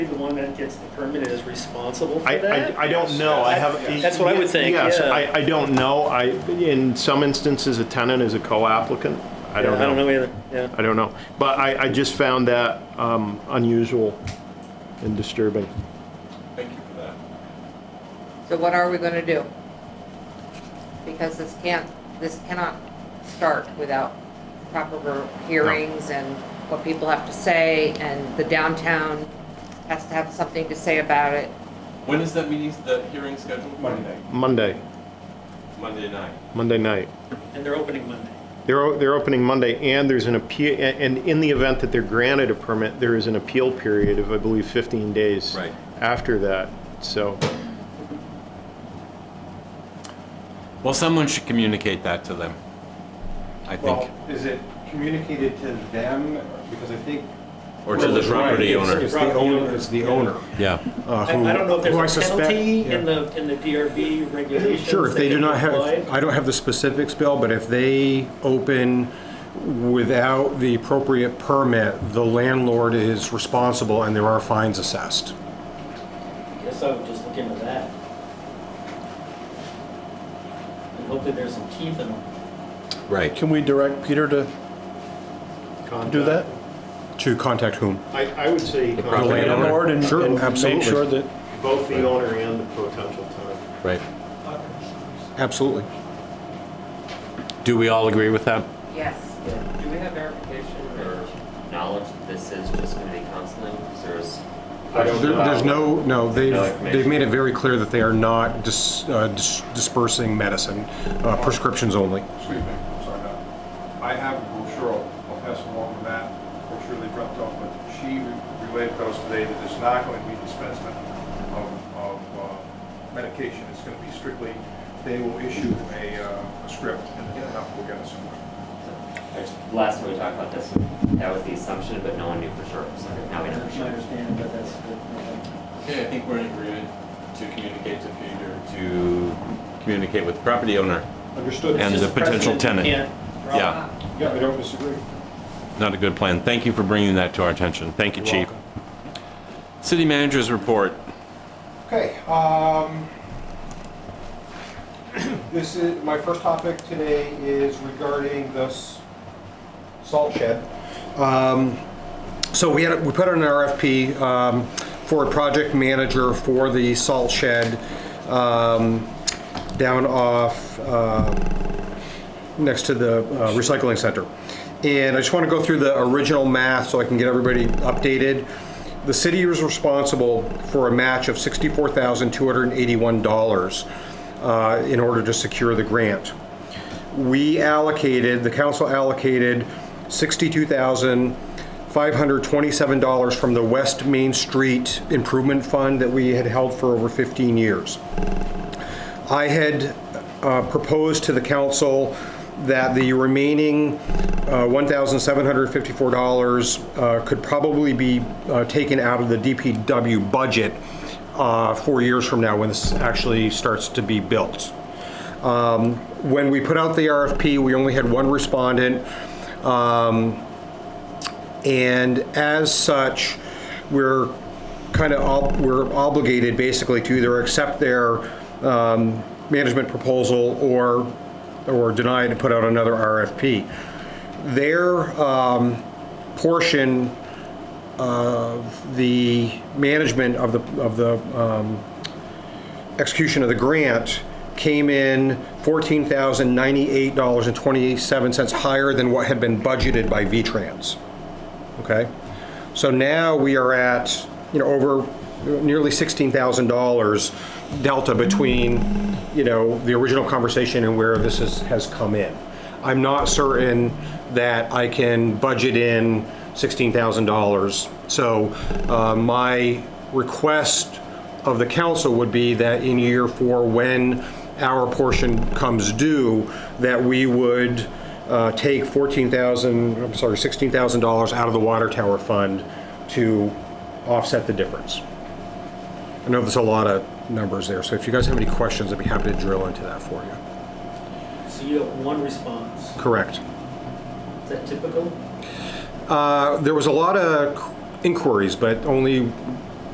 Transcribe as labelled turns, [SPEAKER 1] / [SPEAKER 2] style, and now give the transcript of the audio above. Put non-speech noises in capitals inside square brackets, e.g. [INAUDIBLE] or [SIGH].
[SPEAKER 1] one that gets the permit is responsible for
[SPEAKER 2] I,
[SPEAKER 1] that?
[SPEAKER 2] I, I don't know. I have.
[SPEAKER 1] That's what I would think,
[SPEAKER 2] Yes,
[SPEAKER 1] yeah.
[SPEAKER 2] I, I don't know. I, in some instances, a tenant is a co-applicant. I don't
[SPEAKER 1] Yeah, I don't
[SPEAKER 2] know.
[SPEAKER 1] know either, yeah.
[SPEAKER 2] I don't know. But I, I just found that um, unusual and disturbing.
[SPEAKER 3] Thank you for that.
[SPEAKER 4] So what are we gonna do? Because this can't, this cannot start without proper hearings and what people have to say, and the downtown has to have something to say about it.
[SPEAKER 3] When is that meeting, the hearing scheduled? Monday.
[SPEAKER 2] Monday,
[SPEAKER 3] Monday night.
[SPEAKER 2] Monday night.
[SPEAKER 1] And they're opening Monday.
[SPEAKER 2] They're, o- they're opening Monday, and there's an appeal, and in the event that they're granted a permit, there is an appeal period of, I believe, 15 days.
[SPEAKER 3] Right.
[SPEAKER 2] After that, so,
[SPEAKER 3] Well, someone should communicate that to them, I
[SPEAKER 5] Well,
[SPEAKER 3] think,
[SPEAKER 5] is it communicated to them, because I think.
[SPEAKER 3] or to the
[SPEAKER 5] Right,
[SPEAKER 3] property
[SPEAKER 5] it's-
[SPEAKER 3] owner.
[SPEAKER 5] It's the owner, it's the owner.
[SPEAKER 3] Yeah.
[SPEAKER 5] uh,
[SPEAKER 1] I
[SPEAKER 5] who-
[SPEAKER 1] I don't know if
[SPEAKER 5] who I
[SPEAKER 1] there's a
[SPEAKER 5] suspect-
[SPEAKER 1] penalty
[SPEAKER 5] yeah.
[SPEAKER 1] in the, in the DRB regulations.
[SPEAKER 5] Sure, if
[SPEAKER 1] that
[SPEAKER 5] they do
[SPEAKER 1] can
[SPEAKER 5] not have,
[SPEAKER 1] apply.
[SPEAKER 5] I don't have the specifics, Bill, but if they open without the appropriate permit, the landlord is responsible and there are fines assessed.
[SPEAKER 1] Guess I would just look into that. And hopefully there's some teeth in them.
[SPEAKER 3] Right.
[SPEAKER 6] Can we direct Peter to do that?
[SPEAKER 5] To contact whom?
[SPEAKER 2] I, I would say
[SPEAKER 3] property
[SPEAKER 2] contact
[SPEAKER 3] owner.
[SPEAKER 6] Landlord and
[SPEAKER 5] Sure,
[SPEAKER 6] and make
[SPEAKER 5] absolutely.
[SPEAKER 6] sure that,
[SPEAKER 2] both the owner and the potential tenant.
[SPEAKER 3] Right.
[SPEAKER 5] Absolutely.
[SPEAKER 3] Do we all agree with that?
[SPEAKER 4] Yes.
[SPEAKER 7] Do we have verification or knowledge that this is just gonna be counseling? Is there is,
[SPEAKER 5] There- There's no, no, they've,
[SPEAKER 7] No information.
[SPEAKER 5] they've made it very clear that they are not dis- uh, dis- dispersing medicine, uh, prescriptions only.
[SPEAKER 8] Excuse me, I'm sorry, Doc. I have a brochure, I'll pass along to Matt, brochure they dropped off, but she relayed to us today that there's not going to be dispensement of, of uh, medication. It's going to be strictly, they will issue a, uh, a script and then up we'll get it somewhere.
[SPEAKER 7] last time we talked about this, that was the assumption, but no one knew for sure, so now we know for
[SPEAKER 1] That's my
[SPEAKER 7] sure.
[SPEAKER 1] understanding, but that's good.
[SPEAKER 3] Okay, I think we're in agreement to communicate to Peter, to communicate with the property owner.
[SPEAKER 5] Understood.
[SPEAKER 3] And the potential tenant. Yeah,
[SPEAKER 5] Yeah, I don't disagree.
[SPEAKER 3] not a good plan. Thank you for bringing that to our attention. Thank you, Chief. City Manager's Report.
[SPEAKER 8] Okay,
[SPEAKER 5] [CLEARS THROAT]
[SPEAKER 8] um, this is, my first topic today is regarding this salt shed.
[SPEAKER 5] Um, So we had, we put out an RFP um, for a project manager for the salt shed um, down off, uh, next to the uh, recycling center. And I just want to go through the original math so I can get everybody updated. The city was responsible for a match of $64,281 uh, in order to secure the grant we allocated, the council allocated $62,527 from the West Main Street Improvement Fund that we had held for over 15 years. I had uh, proposed to the council that the remaining uh, $1,754 uh, could probably be uh, taken out of the DPW budget uh, four years from now, when this actually starts to be built Um, when we put out the RFP, we only had one respondent. Um, And as such, we're kind of, ob- we're obligated basically to either accept their um, management proposal or, or deny it and put out another RFP. Their um, portion of the management of the, of the um, execution of the grant came in $14,098.27 higher than what had been budgeted by VTrans. Okay? So now we are at, you know, over nearly $16,000 delta between, you know, the original conversation and where this is, has come in. I'm not certain that I can budget in $16,000. So uh, my request of the council would be that in year four, when our portion comes due, that we would uh, take 14,000, I'm sorry, $16,000 out of the water tower fund to offset the difference. I know there's a lot of numbers there, so if you guys have any questions, I'd be happy to drill into that for you.
[SPEAKER 1] So you have one response.
[SPEAKER 5] Correct.
[SPEAKER 1] Is that typical?
[SPEAKER 5] Uh, There was a lot of inquiries, but only